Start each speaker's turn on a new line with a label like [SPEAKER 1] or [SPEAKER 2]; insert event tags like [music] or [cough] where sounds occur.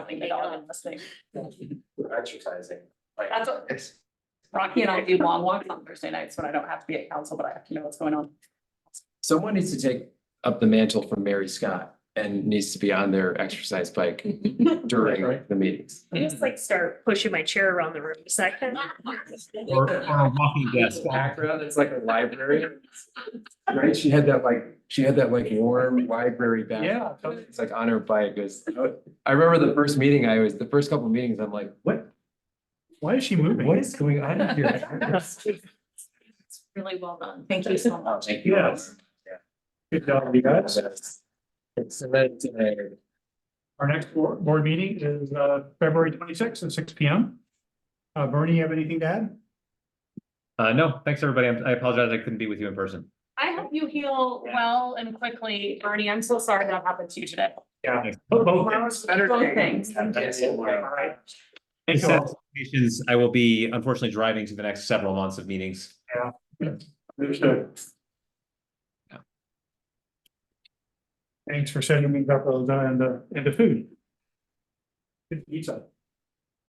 [SPEAKER 1] running the dog in this thing.
[SPEAKER 2] We're exercising, like.
[SPEAKER 1] That's what
[SPEAKER 2] It's,
[SPEAKER 1] Rocky and I do long walks on Thursday nights when I don't have to be at council, but I have to know what's going on.
[SPEAKER 3] Someone needs to take up the mantle from Mary Scott and needs to be on their exercise [laughs] bike during
[SPEAKER 2] Right.
[SPEAKER 3] the meetings.
[SPEAKER 4] I
[SPEAKER 1] Mm-hmm.
[SPEAKER 4] just like start pushing my chair around the room a second.
[SPEAKER 5] Or, or a walking desk.
[SPEAKER 3] Background, it's like a library. [laughs] Right? She had that like, she had that like warm library background.
[SPEAKER 2] yeah, totally.
[SPEAKER 3] It's like on her bike it was, I remember the first meeting I was, the first couple of meetings, I'm like, what,
[SPEAKER 5] Why is she moving?
[SPEAKER 3] what is going on [laughs] here?
[SPEAKER 1] It's really well done. Thank you so much.
[SPEAKER 2] Thank you.
[SPEAKER 5] Yes. Good job, uh, you guys.
[SPEAKER 3] It's meant to-
[SPEAKER 5] Our next board, board meeting is, uh, February twenty-sixth at six P M. Uh, Bernie, you have anything to add?
[SPEAKER 6] Uh, no, thanks, everybody. I'm- I apologize. I couldn't be with you in person.
[SPEAKER 1] I hope you heal well and quickly, Bernie. I'm so sorry that happened to you today.
[SPEAKER 5] Yeah.
[SPEAKER 6] Thanks.
[SPEAKER 5] Oh, Both.
[SPEAKER 1] Both things.
[SPEAKER 5] Alright. Thank
[SPEAKER 6] Thanks
[SPEAKER 5] you
[SPEAKER 6] for
[SPEAKER 5] all.
[SPEAKER 6] all the patience. I will be unfortunately driving to the next several months of meetings.
[SPEAKER 5] Understood. uh, Thanks for setting me up on the, and the food. Good pizza.